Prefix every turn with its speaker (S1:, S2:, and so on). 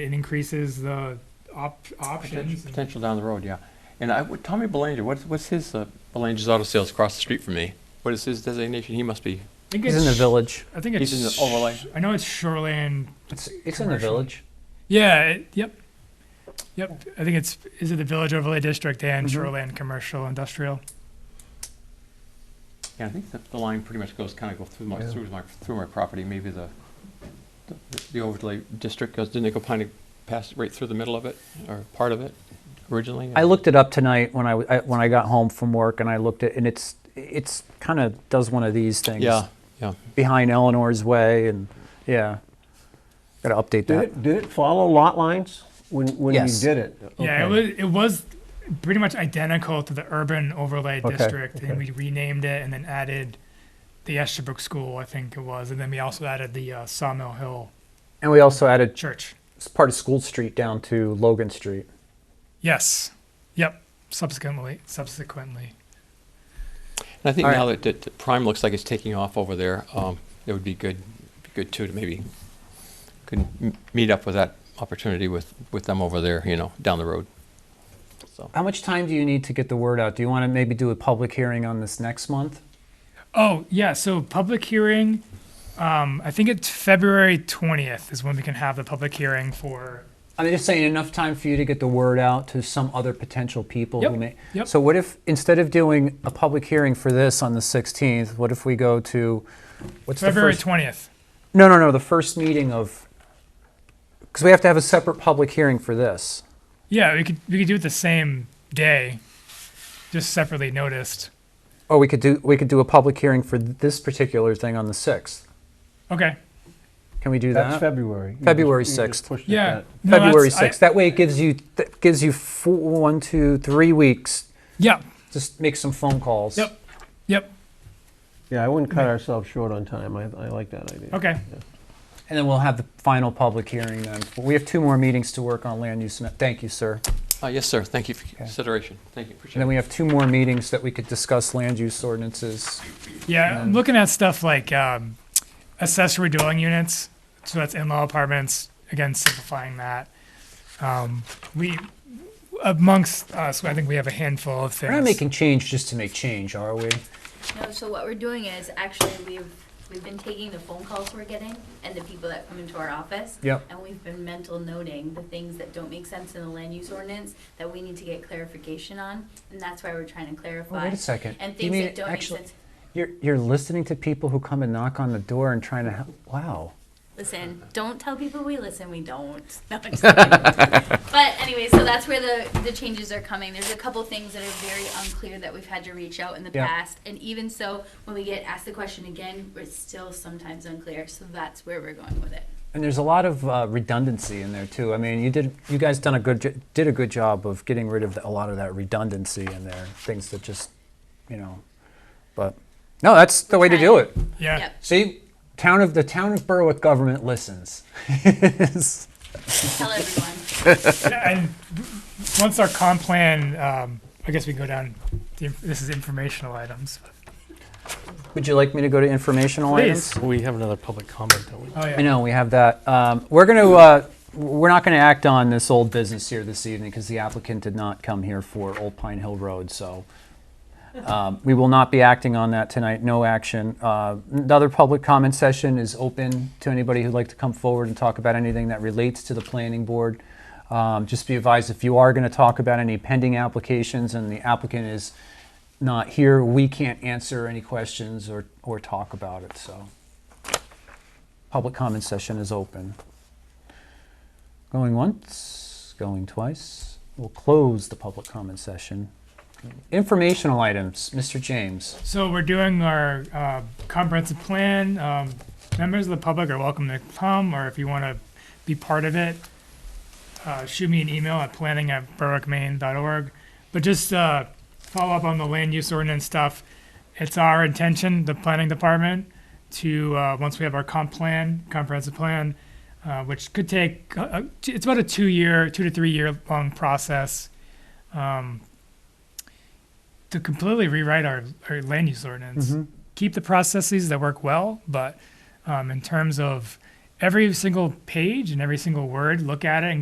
S1: It increases the op- options. and-
S2: Potential down the road, yeah. And I, would- Tommy Belanger, what's, what's his, uh, Belanger's Auto Sales across the street from me? What is his designation? He must be,
S1: I think
S3: He's
S1: it's
S3: in the
S1: sh-
S3: village.
S1: I think it's
S2: he's in the overlay.
S1: I know it's shoreland.
S3: It's, it's in the
S1: commercial.
S3: village.
S1: Yeah. It, yep. Yep. I think it's is it the village overlay district and
S4: Mm-hmm.
S1: shoreland commercial industrial.
S2: Yeah, I think that the line pretty much goes, kind of go through my,
S3: Yeah.
S2: through my, through my property, maybe the, the- the overlay district goes, didn't it go kind of past, right through the middle of it, or part of it originally?
S3: I looked it up tonight when I, w- I- when I got home from work and I looked at, and it's, it's kind of does one of these things.
S2: Yeah, yeah.
S3: Behind Eleanor's Way and, yeah. Got to update
S4: Did
S3: that.
S4: it, did it follow lot lines when, when you
S3: Yes.
S4: did it?
S1: Yeah. It
S4: Okay.
S1: was it was pretty much identical to the urban overlay
S4: Okay,
S1: district,
S4: okay.
S1: and we renamed it and then added the Esterbrook School, I think it was, and then we also added the uh, Sawmill Hill
S3: And we also added
S1: Church.
S3: s- part of School Street down to Logan Street.
S1: Yes. Yep. Subsequently, subsequently.
S2: And I think
S3: All right.
S2: now that, that Prime looks like it's taking off over there, um, it would be good, be good too to maybe could m- meet up with that opportunity with, with them over there, you know, down the road. So,
S3: How much time do you need to get the word out? Do you want to maybe do a public hearing on this next month?
S1: Oh, yeah. So public hearing, um, I think it's February 20th is when we can have the public hearing for.
S3: I'm just saying enough time for you to get the word out to some other potential people who
S1: Yep,
S3: may.
S1: yep.
S3: So what if instead of doing a public hearing for this on the 16th, what if we go to what's
S1: February
S3: the
S1: 20th.
S3: first? no, no, no. The first meeting of because we have to have a separate public hearing for this.
S1: Yeah, we could we could do it the same day, just separately noticed.
S3: Or we could do we could do a public hearing for this particular thing on the 6th.
S1: Okay.
S3: Can we do
S4: That's
S3: that?
S4: February. You just-
S3: February
S4: you just
S3: 6th.
S4: pushed it
S1: Yeah.
S4: back.
S1: No, that's-
S3: uh, February
S1: I-
S3: 6th. that way it gives you that gives you four, one, two, three weeks.
S1: Yep.
S3: Just make some phone calls.
S1: Yep. Yep.
S4: Yeah, I wouldn't cut ourselves short on time. I, I like that idea.
S1: Okay.
S3: And then we'll have the final public hearing then. But we have two more meetings to work on land use. ma- Thank you, sir.
S2: uh, yes, sir, thank you for your consideration. Thank you,
S3: And
S2: appreciate
S3: then
S2: it.
S3: we have two more meetings that we could discuss land use ordinances.
S1: Yeah, I'm looking at stuff like um, accessory dwelling units. So that's in-law apartments. Again, simplifying that. Um, we amongst us, I think we have a handful of things.
S3: We're not making change just to make change, are we?
S5: No, so what we're doing is actually we've, we've been taking the phone calls we're getting and the people that come into our office.
S3: Yep.
S5: And we've been mental noting the things that don't make sense in the land use ordinance that we need to get clarification on. And that's why we're trying to clarify.
S3: Oh, wait a second.
S5: And
S3: You
S5: things
S3: mean
S5: that don't make
S3: actually-
S5: sense.
S3: You're, you're listening to people who come and knock on the door and trying to, hel- wow.
S5: Listen, don't tell people we listen. We don't. No, I'm just kidding. but anyway, so that's where the the changes are coming. There's a couple things that are very unclear that we've had to reach out in the
S3: Yeah.
S5: past, and even so, when we get asked the question again, it's still sometimes unclear. So that's where we're going with it.
S3: And there's a lot of uh, redundancy in there too. I mean, you did, you guys done a good, jo- did a good job of getting rid of a lot of that redundancy in there. Things that just, you know, but, no, that's the way to do it.
S1: Yeah.
S5: Yep.
S3: See, town of the town of Berwick government listens.
S5: Tell everyone.
S1: Yeah, and once our comp plan, um, I guess we can go down. the inf- This is informational items.
S3: Would you like me to go to informational
S1: Please.
S3: items?
S6: We have another public comment, don't we?
S1: Oh yeah.
S3: I know we have that. Um, we're going to uh, we're not going to act on this old business here this evening because the applicant did not come here for Old Pine Hill Road, so. Um, we will not be acting on that tonight. No action. Uh, another public comment session is open to anybody who'd like to come forward and talk about anything that relates to the planning board. Um, just be advised if you are going to talk about any pending applications and the applicant is not here, we can't answer any questions or, or talk about it. So, public comment session is open. Going once, going twice. We'll close the public comment session. Informational items, Mr. James.
S1: So we're doing our uh, comprehensive plan. Um, members of the public are welcome to come, or if you want to be part of it, uh, shoot me an email at planning at berwickmaine.org. But just uh, follow up on the land use ordinance stuff. It's our intention, the planning department, to uh, once we have our comp plan, comprehensive plan, uh, which could take uh, uh, t- it's about a two-year, two to three-year long process. Um, to completely rewrite our, our land use ordinance. Keep the processes that work well, but um, in terms of every single page and every single word, look at it and